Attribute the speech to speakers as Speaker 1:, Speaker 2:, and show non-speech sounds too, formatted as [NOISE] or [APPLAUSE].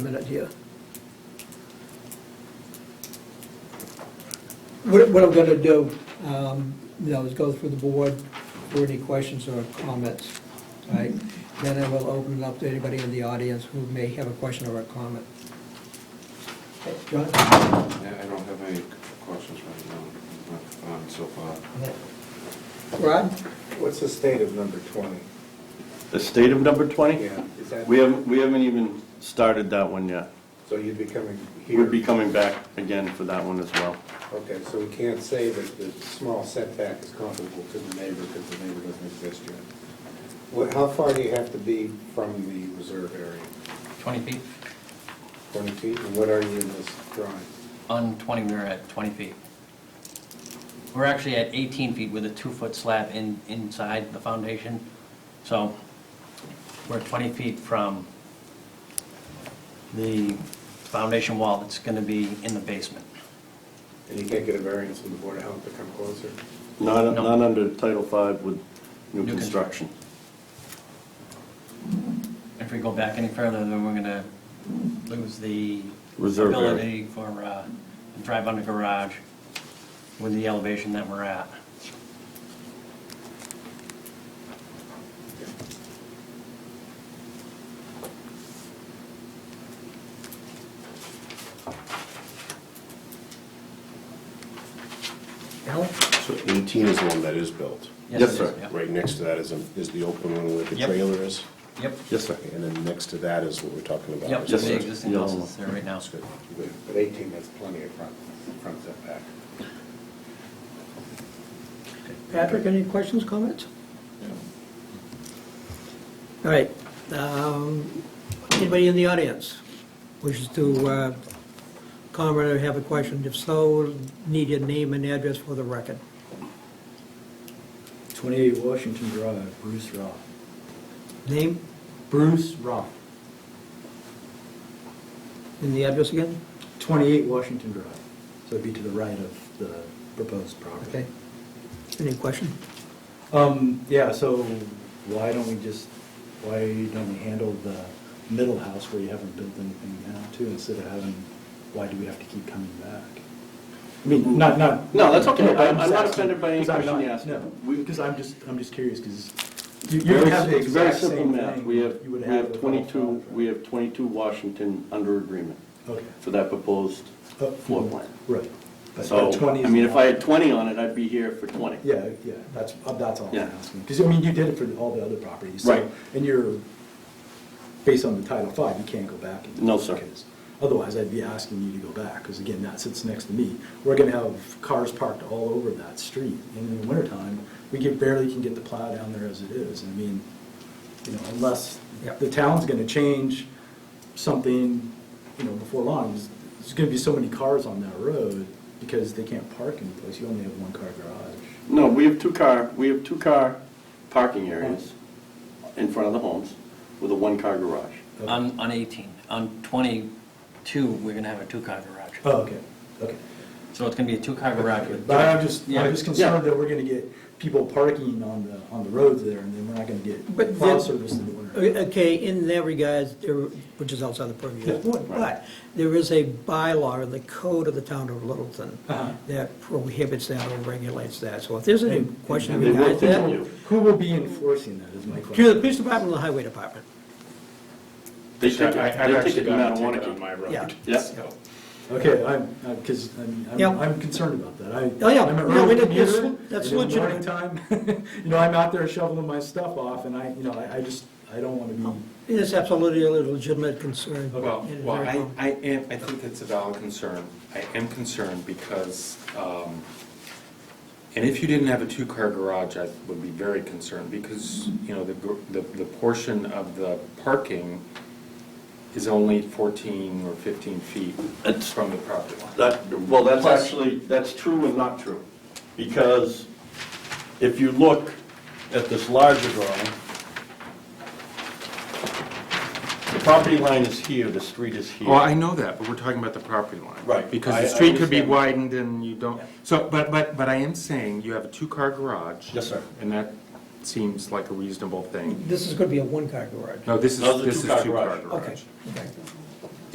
Speaker 1: minute here. What, what I'm gonna do, um, you know, is go through the board for any questions or comments, right? Then I will open it up to anybody in the audience who may have a question or a comment. Okay, John?
Speaker 2: Yeah, I don't have any questions right now, not, um, so far.
Speaker 1: Rod?
Speaker 3: What's the state of number 20?
Speaker 4: The state of number 20?
Speaker 3: Yeah, is that,
Speaker 4: We haven't, we haven't even started that one yet.
Speaker 3: so you'd be coming here?
Speaker 4: We'd be coming back again for that one as well.
Speaker 3: Okay, so we can't say that the small setback is comparable to the neighbor because the neighbor doesn't exist yet. What, how far do you have to be from the reserve area?
Speaker 5: 20 feet?
Speaker 3: 20 feet, and what are you in this drawing?
Speaker 5: On 20, we we're at 20 feet. We're actually at 18 feet with a two-foot slab in, inside the foundation. So we're 20 feet from the foundation wall that's going to be in the basement.
Speaker 3: And you can't get a variance from the Board of Health to come closer?
Speaker 4: Not,
Speaker 5: No.
Speaker 4: not under Title V with new
Speaker 5: New
Speaker 4: construction.
Speaker 5: If we go back any further, then we're going to lose the
Speaker 4: Reserve area.
Speaker 5: ability for, uh, to drive under garage with the elevation that we're at.
Speaker 1: Alan?
Speaker 6: So 18 is the one that is built.
Speaker 5: Yes,
Speaker 4: Yes,
Speaker 5: it is,
Speaker 4: sir.
Speaker 5: yeah.
Speaker 6: Right next to that is, a- is the open one where the
Speaker 5: Yep.
Speaker 6: trailer is,
Speaker 5: Yep,
Speaker 4: Yes, sir.
Speaker 6: and then next to that is what we're talking about.
Speaker 5: yep,
Speaker 6: is
Speaker 4: Yes,
Speaker 5: the
Speaker 4: sir.
Speaker 6: the-
Speaker 5: existing
Speaker 4: Yeah.
Speaker 5: house is there right now.
Speaker 6: That's good.
Speaker 3: But but 18, that's plenty of front, front setback.
Speaker 1: Patrick, any questions, comments? All right, um, anybody in the audience wishes to uh, comment or have a question? If so, need your name and address for the record.
Speaker 7: 28 Washington Drive, Bruce Roth.
Speaker 1: Name
Speaker 7: Bruce Roth.
Speaker 1: and the address again?
Speaker 7: 28 Washington Drive. So it'd be to the right of the proposed property.
Speaker 1: Okay. Any question?
Speaker 7: Um, yeah, so why don't we just, why don't we handle the middle house where you haven't built anything now too, instead of having, why do we have to keep coming back? I mean, not, not.
Speaker 4: No, that's okay. I'm-
Speaker 7: just
Speaker 4: I'm not
Speaker 7: asking,
Speaker 4: offended by any
Speaker 7: 'cause I'm
Speaker 4: question
Speaker 7: not-
Speaker 4: you asked.
Speaker 7: No, because I'm just, I'm just curious, because you you
Speaker 4: Very
Speaker 7: would
Speaker 4: s-
Speaker 7: have the
Speaker 4: it's very
Speaker 7: exact
Speaker 4: simple
Speaker 7: same
Speaker 4: math.
Speaker 7: thing
Speaker 4: We have,
Speaker 7: you would
Speaker 4: we have
Speaker 7: with all
Speaker 4: 22,
Speaker 7: five,
Speaker 4: we
Speaker 7: right?
Speaker 4: have 22 Washington under agreement
Speaker 7: Okay.
Speaker 4: for that proposed
Speaker 7: Oh,
Speaker 4: floor plan.
Speaker 7: Right. But
Speaker 4: So,
Speaker 7: but 20
Speaker 4: I
Speaker 7: is
Speaker 4: mean, if I
Speaker 7: not-
Speaker 4: had 20 on it, I'd be here for 20.
Speaker 7: Yeah, yeah, that's, uh, that's all I'm
Speaker 4: Yeah.
Speaker 7: asking. Because, I mean, you did it for all the other properties. so-
Speaker 4: Right.
Speaker 7: And you're, based on the Title V, you can't go back. and do
Speaker 4: No,
Speaker 7: that,
Speaker 4: sir.
Speaker 7: 'cause Otherwise, I'd be asking you to go back, because again, that sits next to me. We're gonna have cars parked all over that street. And in the wintertime, we get, barely can get the plow down there as it is. I mean, you know, unless
Speaker 1: Yep.
Speaker 7: the town's gonna change something, you know, before long, there's- there's gonna be so many cars on that road because they can't park anyplace. You only have one car garage.
Speaker 4: No, we have two car, we have two car parking areas in front of the homes with a one-car garage.
Speaker 5: On, on 18. On 22, we're going to have a two-car garage.
Speaker 7: Oh, okay, okay.
Speaker 5: So it's going to be a two-car garage with...
Speaker 7: But I'm just,
Speaker 5: Yeah.
Speaker 7: I'm just concerned that we're gonna get people parking on the, on the roads there, and then we're not gonna
Speaker 1: But
Speaker 7: get plow
Speaker 1: the- Oh,
Speaker 7: service in the winter.
Speaker 1: Okay, in that regards, there- which is outside the purview of the board,
Speaker 4: Yeah,
Speaker 1: but
Speaker 4: right.
Speaker 1: there is a bylaw in the code of the town of Littleton
Speaker 7: Uh-huh.
Speaker 1: that prohibits that or regulates that. So if there's any
Speaker 7: And-
Speaker 1: question
Speaker 4: and they will
Speaker 1: regarding
Speaker 4: tell you.
Speaker 1: that,
Speaker 7: Who will be enforcing that is my question.
Speaker 1: to the police department or the highway department.
Speaker 4: They take it,
Speaker 3: I- I've
Speaker 4: they take
Speaker 3: actually
Speaker 4: it no
Speaker 3: got a
Speaker 4: matter
Speaker 3: ticket on
Speaker 4: what.
Speaker 3: my road.
Speaker 1: Yeah.
Speaker 4: Yes,
Speaker 7: Okay, I'm, because, I mean, I'm-
Speaker 1: Yeah.
Speaker 7: I'm concerned about that. I-
Speaker 1: Oh, yeah.
Speaker 7: I'm an
Speaker 1: No,
Speaker 7: early
Speaker 1: it- it's-
Speaker 7: commuter,
Speaker 1: that's
Speaker 7: and in the
Speaker 1: legitimate.
Speaker 7: morning time, [LAUGHS] you know, I'm out there shoveling my stuff off, and I, you know, I I just, I don't want to be
Speaker 1: It is absolutely a legitimate concern.
Speaker 8: Well,
Speaker 1: It is
Speaker 8: well,
Speaker 1: very
Speaker 8: I,
Speaker 1: common.
Speaker 8: I am, I think that's a valid concern. I am concerned because, um, and if you didn't have a two-car garage, I would be very concerned because, you know, the, gr- the, the portion of the parking is only fourteen or fifteen feet
Speaker 4: It's-
Speaker 8: from the property line.
Speaker 4: that, well, that's
Speaker 8: Plus-
Speaker 4: actually, that's true and not true. Because if you look at this larger drawing, the property line is here, the street is here.
Speaker 8: Well, I know that, but we're talking about the property line.
Speaker 4: Right.
Speaker 8: Because
Speaker 4: I- I
Speaker 8: the street could be
Speaker 4: understand.
Speaker 8: widened and you don't, so, but, but, but I am saying you have a two-car garage.
Speaker 4: Yes, sir.
Speaker 8: And that seems like a reasonable thing.
Speaker 1: This is going to be a one-car garage.
Speaker 8: No, this is,
Speaker 4: Those are
Speaker 8: this is
Speaker 4: two-car
Speaker 8: two-car
Speaker 4: garage.
Speaker 8: garage.
Speaker 1: Okay, okay.